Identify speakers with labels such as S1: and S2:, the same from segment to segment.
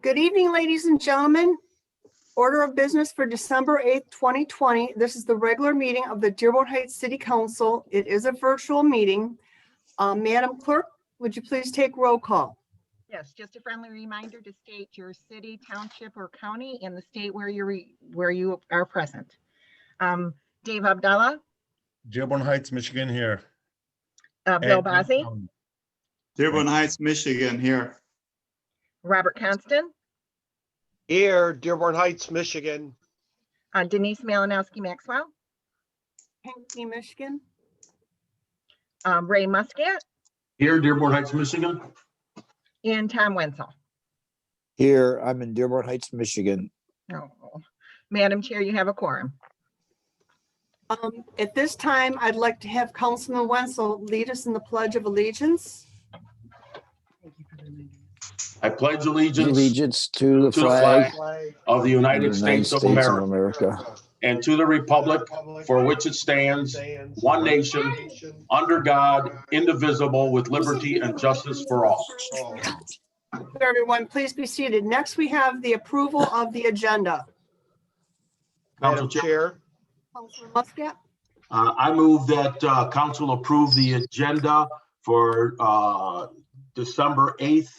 S1: Good evening, ladies and gentlemen. Order of business for December 8th, 2020. This is the regular meeting of the Dearborn Heights City Council. It is a virtual meeting. Uh, Madam Clerk, would you please take roll call?
S2: Yes, just a friendly reminder to state your city, township, or county and the state where you're, re- where you are present. Um, Dave Abdallah,
S3: Dearborn Heights, Michigan here.
S2: uh, Bill
S3: And- um,
S2: Bossie,
S4: Dearborn Heights, Michigan here.
S2: Robert Constant,
S5: Here, Dearborn Heights, Michigan.
S2: uh, Denise Malinowski Maxwell,
S1: Hanky, Michigan.
S2: um, Ray Muscat,
S6: Here, Dearborn Heights, Michigan.
S2: and Tom Wenzel.
S7: Here, I'm in Dearborn Heights, Michigan.
S2: Oh, Madam Chair, you have a quorum.
S1: Um, At this time, I'd like to have Councilman Wenzel lead us in the Pledge of Allegiance.
S6: I pledge allegiance
S7: Allegiance to the
S6: to the
S7: flag
S6: of the
S7: of the
S6: United
S7: United
S6: States of
S7: States of
S6: America
S7: America.
S6: and to the republic for which it stands, one nation, under God, indivisible, with liberty and justice for all.
S1: Everyone, please be seated. Next, we have the approval of the agenda.
S6: Council
S5: Madam
S6: Chair,
S5: Chair,
S1: Councilman Muscat?
S6: uh, I move that uh, council approve the agenda for uh, December 8th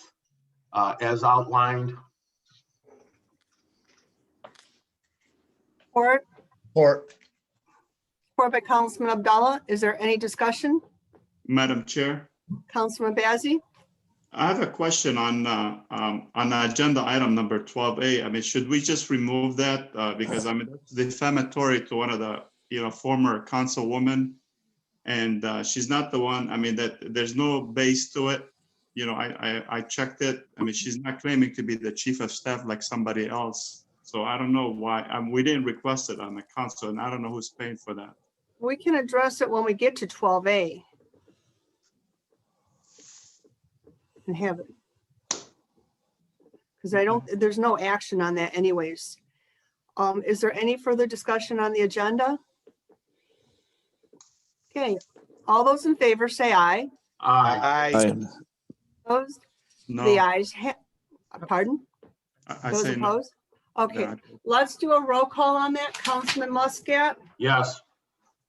S6: uh, as outlined.
S1: Or
S3: Or,
S1: Support by Councilman Abdallah. Is there any discussion?
S4: Madam Chair,
S1: Councilman Bazey?
S4: I have a question on, uh, um, on agenda item number 12A. I mean, should we just remove that? Uh, Because I mean, that's defamatory to one of the, you know, former councilwoman. And uh, she's not the one, I mean, that, there's no base to it. You know, I, I, I checked it. I mean, she's not claiming to be the chief of staff like somebody else. So I don't know why, um, we didn't request it on the council and I don't know who's paying for that.
S1: We can address it when we get to 12A. And have it. Because I don't, there's no action on that anyways. Um, Is there any further discussion on the agenda? Okay, all those in favor say aye.
S6: Aye.
S5: I,
S7: I-
S1: Opposed?
S4: No,
S1: The
S4: I
S1: ayes, ha- pardon?
S4: I
S1: Those
S4: say no.
S1: opposed? Okay,
S4: Yeah.
S1: let's do a roll call on that. Councilman Muscat?
S6: Yes.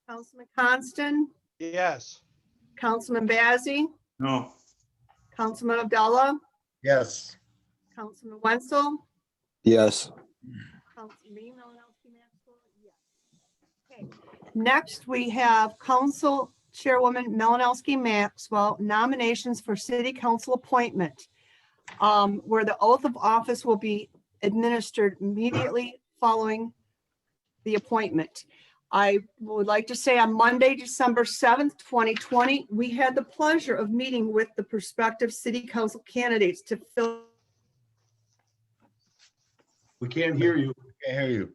S1: Councilman Coniston,
S5: yes,
S1: Councilman Bazey,
S4: No.
S1: Councilman Abdullah,
S3: yes,
S1: Councilman Wenzel,
S7: Yes,
S1: Councilman Malinowski Maxwell, yes. Okay. Next, we have Council Chairwoman Malinowski Maxwell nominations for city council appointment, um, where the oath of office will be administered immediately following the appointment. I would like to say on Monday, December 7th, 2020, we had the pleasure of meeting with the prospective city council candidates to fill
S6: We can't hear you.
S3: can't hear you.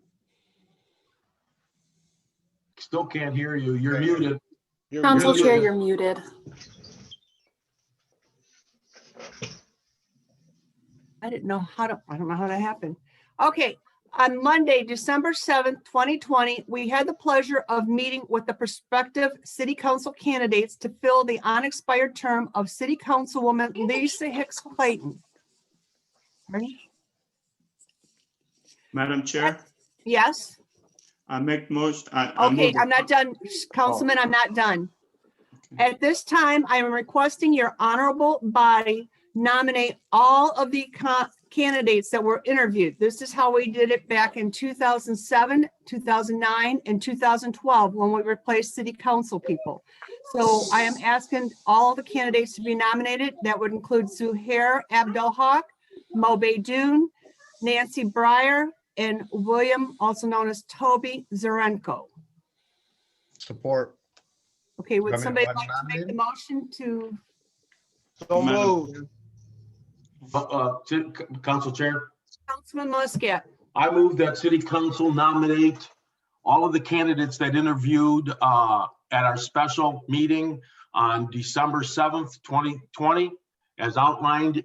S6: Still can't hear you. You're muted.
S5: you're
S8: Council
S6: muted.
S8: Chair, you're muted.
S1: I didn't know how to, I don't know how that happened. Okay, on Monday, December seventh, twenty twenty, we had the pleasure of meeting with the prospective city council candidates to fill the unexpired term of city councilwoman Lisa Hicks Clayton. Ready?
S4: Madam Chair,
S1: Yes,
S4: I make motion. I- I
S1: okay,
S4: move-
S1: I'm not done, Councilman, I'm not done. At this time, I am requesting your honorable body nominate all of the co- candidates that were interviewed. This is how we did it back in 2007, 2009, and 2012, when we replaced city council people. So I am asking all the candidates to be nominated. That would include Zuhair Abdelhak, Mo Baydun, Nancy Breyer, and William, also known as Toby Zarenko.
S3: Support.
S1: Okay, would
S3: Want me to
S1: somebody
S3: watch
S1: like to make the motion to,
S5: so
S4: Madam
S5: moved.
S6: Uh, uh, Ci- C- Council Chair?
S1: Councilman Muscat?
S6: I move that city council nominate all of the candidates that interviewed uh, at our special meeting on December 7th, 2020, as outlined